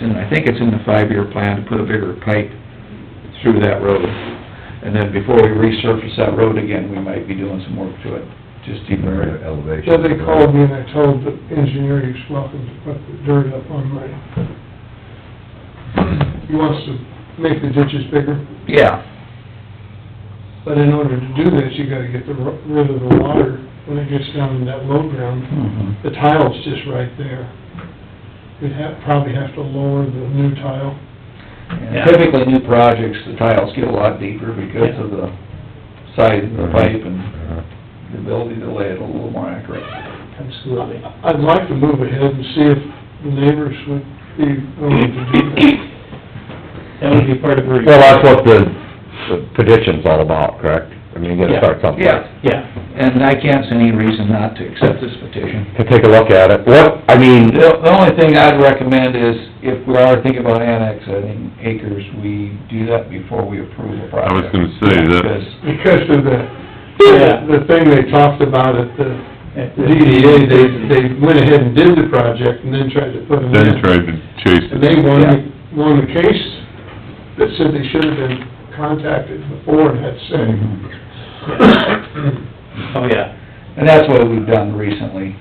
in, I think it's in the five-year plan to put a bigger pipe through that road. And then before we resurface that road again, we might be doing some work to it, just even Or elevation. So they called me and I told the engineer he's welcome to put the dirt up on my, he wants to make the ditches bigger, Yeah, but in order to do this, you gotta get the, ro- rid of the water when it gets down in that low ground. mhm, The tile's just right there. We'd have, probably have to lower the new tile. And typically new projects, the tiles get a lot deeper because of the size of the pipe and Uh-huh. the ability to lay it a little more accurate. Absolutely. I'd like to move ahead and see if the neighbors would be willing to do that. That would be part of her... Well, that's what the the petition's all about, correct? I mean, you gotta start something. Yeah, Yeah, and I can't see any reason not to accept this petition. To take a look at it. What, I mean, The, the only thing I'd recommend is, if we are thinking about annexing acres, we do that before we approve a project. I was gonna say that- Because Because of the, Yeah. the thing they talked about at the At the- DDA, they, they went ahead and did the project and then tried to put them Then he in. tried to chase And it. they won, the- won the case that said they should have been contacted before and had Mm-hmm. say. oh, yeah, And that's what we've done recently,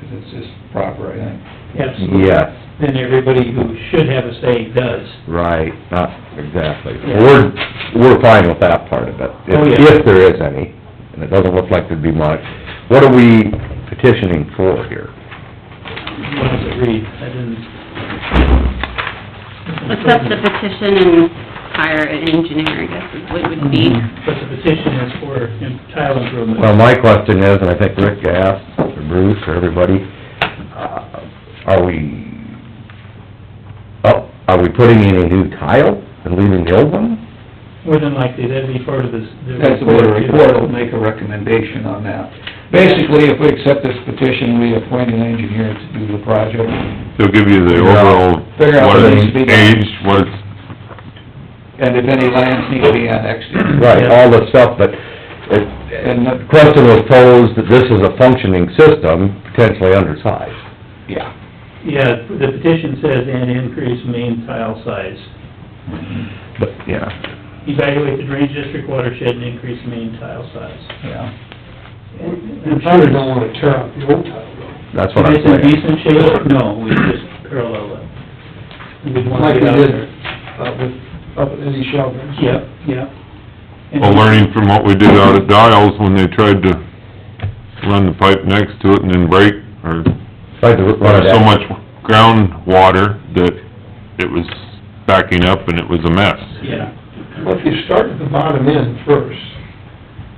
because it's just proper, I think. absolutely. yes, Then everybody who should have a say does. right, not exactly. Yeah. We're, we're fine with that part of it, Oh, yeah. if, if there is any, and it doesn't look like there'd be much. What are we petitioning for here? What does it read? I didn't... accept the petition and hire an engineer, I guess, is what it would be. But the petition is for tile improvement. Well, my question is, and I think Rick asked, or Bruce, or everybody, uh, are we, oh, are we putting in a new tile and leaving the old one? More than likely, that'd be part of this... the That's the board report, will make a recommendation on that. Basically, if we accept this petition, we appoint an engineer to do the project. They'll give you the overall, Figure out what what needs to is be done. aged, what's, And if any lands need to be annexed, Right, all this stuff, but it, and, the question was posed that this is a functioning system, potentially undersized. yeah. Yeah, the petition says, "And increase main tile size. But, yeah, Evaluate the drainage district watershed and increase main tile size." Yeah. We probably don't wanna tear out the old tile though. that's what I'm If it's in saying. decent shape, no, we just parallel it. We'd want Like to we get out did, there. uh, with, up at Eddie Sheldon's. Yep, yep. And- well, learning from what we did out at Dials when they tried to run the pipe next to it and then break, or, Tried to run it there was so out. much groundwater that it was backing up and it was a mess. Yeah, Well, if you start at the bottom end first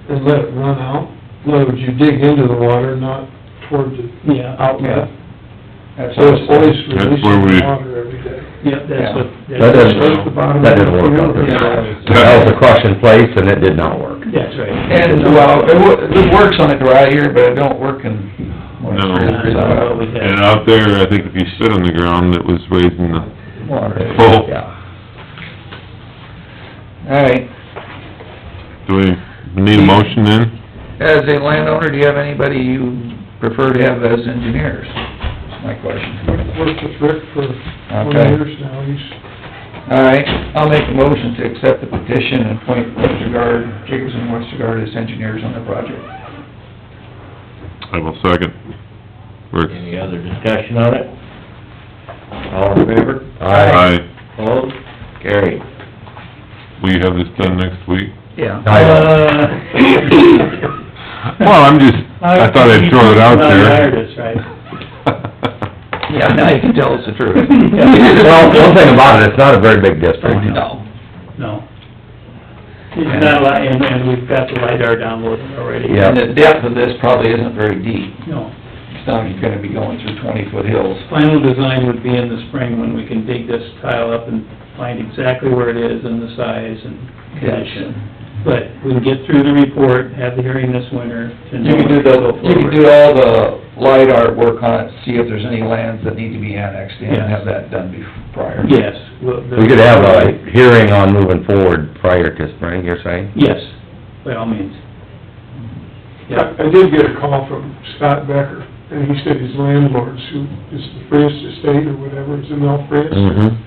and let it run out, in other words, you dig into the water, not toward the yeah, outlet. That's So it's all. always That's where releasing we- water every day. yep, that's what... That doesn't, That's the bottom that didn't work out there. That was a crush in place, and it did not work. That's right. And, well, it wo- it works on a dry year, but it don't work in... No. Well, we And had, out there, I think if you sit on the ground, it was raising the Water. full, Yeah. All right, do we need a motion then? as a landowner, do you have anybody you prefer to have as engineers? That's my question. I've Worked with Rick for twenty Okay. years now, he's, All right, I'll make a motion to accept the petition and appoint Westergaard, Jacobson and Westergaard as engineers on the project. I will second. Rick? Any other discussion on it? All in favor? Aye. Opposed? Gary. Will you have this done next week? Yeah. uh... Well, I'm just, I thought I'd throw it out Not hired there. us, right? Yeah, now you can tell us the truth. Well, one thing about it, it's not a very big district. No. No. It's not a lot, and, and we've got the LiDAR downloaded already. Yeah. And the depth of this probably isn't very deep. No, It's not you're gonna be going through twenty-foot hills. final design would be in the spring when we can dig this tile up and find exactly where it is and the size and condition. But we can get through the report, have the hearing this winter to know. You can do if we the, go you can forward. do all the light art work on it, see if there's any lands that need to be annexed in, and Yes. have that done bef- prior. Yes. well, the- We could have uh, a hearing on moving forward prior to spring, you're saying? Yes, by all means. Yeah, I I did get a call from Scott Becker, and he said his landlords, who is the Frisch estate or whatever, is in El Frisch, Mm-hmm.